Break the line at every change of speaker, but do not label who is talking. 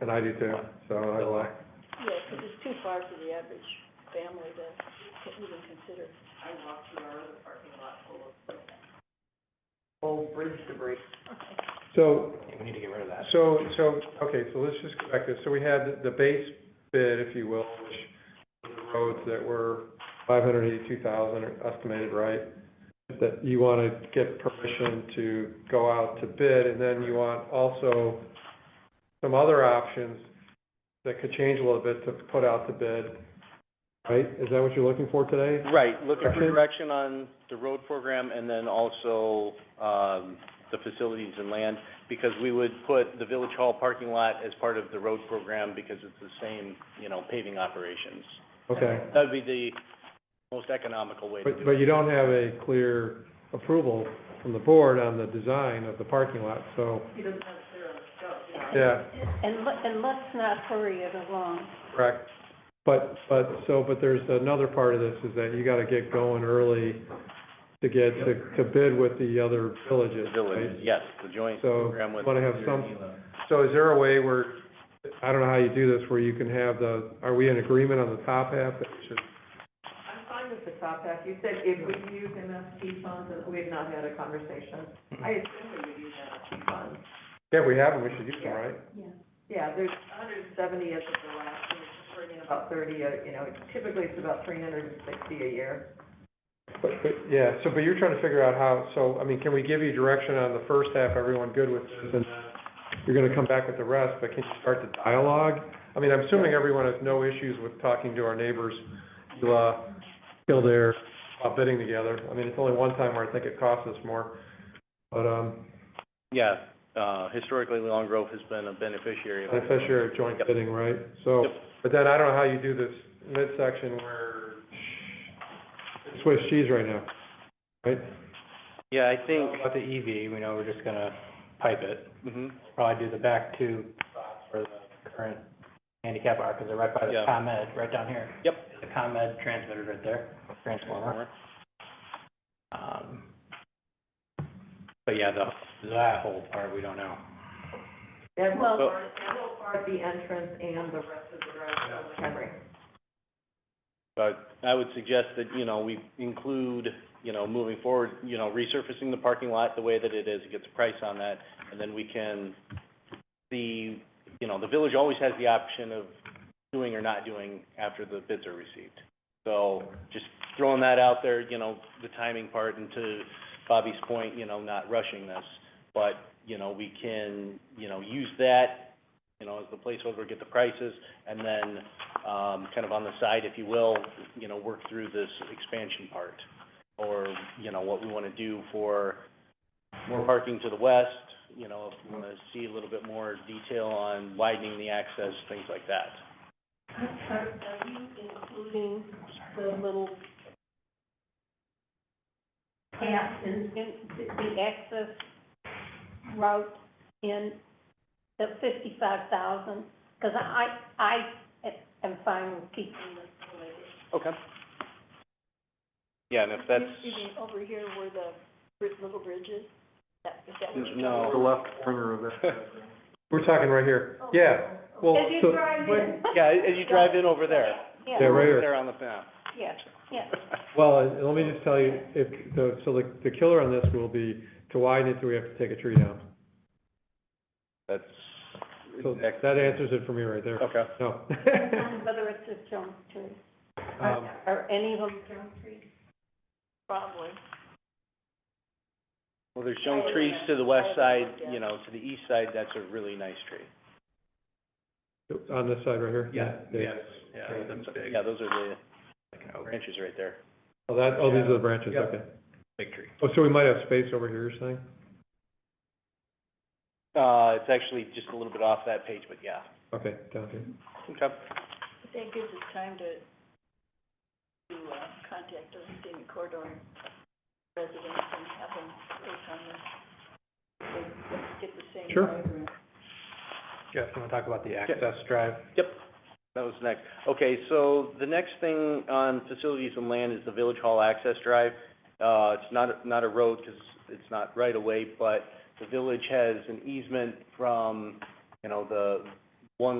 And I do too, so I like,
Yeah, because it's too far for the average family to co- even consider.
old bridge debris.
so,
We need to get rid of that.
so, so, okay, so let's just go back to, so we had the base bid, if you will, which were the roads that were five hundred eighty-two thousand estimated, right? That you wanna get permission to go out to bid, and then you want also some other options that could change a little bit to put out to bid, right? Is that what you're looking for today?
Right, looking for
Direction?
direction on the road program and then also, um, the facilities and land, because we would put the Village Hall parking lot as part of the road program because it's the same, you know, paving operations.
Okay.
That would be the most economical way to
But,
do
but
it.
you don't have a clear approval from the board on the design of the parking lot, so,
He doesn't have a clear on the scope, you know.
yeah,
And let, and let's not hurry it along.
correct. But, but, so, but there's another part of this, is that you gotta get going early to get, to, to bid with the other villages,
The village,
right?
yes, the joint
So,
program with.
wanna have some, so is there a way where, I don't know how you do this, where you can have the, are we in agreement on the top half that we should
I'm fine with the top half. You said if we use MSP funds, and we have not had a conversation. I assume we would use MSP funds.
Yeah, we have them, we should use them, right?
Yeah, there's hundred and seventy as of the last, year, we're bringing about thirty, uh, you know, typically it's about three hundred and sixty a year.
But, but, yeah, so, but you're trying to figure out how, so, I mean, can we give you direction on the first half, everyone good with this, and you're gonna come back with the rest, but can you start the dialogue? I mean, I'm assuming everyone has no issues with talking to our neighbors, uh, Kildare, about bidding together. I mean, it's only one time where I think it costs us more, but, um,
Yeah, uh, historically, Long Grove has been a beneficiary of.
beneficiary of joint
Yep.
bidding, right? So,
Yep.
but then I don't know how you do this midsection where it's Swiss cheese right now, right?
Yeah, I think,
About the EV, we know we're just gonna pipe it,
mhm,
probably do the back two spots for the current handicap are, because they're right by the
Yeah.
ComEd, right down here.
Yep.
The ComEd transmitter right there, transformer. Um, but yeah, the, that whole part, we don't know.
That will,
Well-
that will part the entrance and the rest of the road of Henry.
But I would suggest that, you know, we include, you know, moving forward, you know, resurfacing the parking lot the way that it is, it gets a price on that, and then we can, the, you know, the village always has the option of doing or not doing after the bids are received. So just throwing that out there, you know, the timing part, and to Bobby's point, you know, not rushing this, but, you know, we can, you know, use that, you know, as the placeholder, get the prices, and then um, kind of on the side, if you will, you know, work through this expansion part, or, you know, what we want to do for more parking to the west, you know, if we want to see a little bit more detail on widening the access, things like that.
Are, are you including the little path and, and the- the access route in the fifty-five thousand? Because I, I am fine with keeping this the way it is.
Okay. Yeah, and if that's,
You you mean over here where the bri- little bridge is? That, is that what you're talking
No.
about?
left corner of it. We're talking right here,
Oh.
yeah, well,
As you
so-
drive in.
yeah, as you drive in over there,
Yeah,
Yeah,
yeah,
right here.
there on the map.
yeah, yeah.
Well, and let me just tell you, if, the- so the, the killer on this will be to widen it, do we have to take a tree down?
That's
So
exact-
that answers it for me right there.
Okay.
No.
Whether it's a junk tree,
Um,
are any of them junk trees? Probably.
Well, there's young trees to the west side, you know, to the east side, that's a really nice tree.
On this side right here?
Yeah, that's- Yeah, those are the branches right there.
Oh, that, oh, these are the branches,
Yeah.
okay.
Big tree.
Oh, so we might have space over here, you're saying?
Uh, it's actually just a little bit off that page, but yeah.
Okay, down here.
Okay.
I think gives us time to, to, uh, contact those David Cordon residents and have them work on this. Let's Get the same.
Sure.
diagram.
Jeff, you wanna talk about the access drive?
That was next. Okay, so the next thing on facilities and land is the Village Hall Access Drive. Uh, it's not, not a road, 'cause it's not right away, but the village has an easement from, you know, the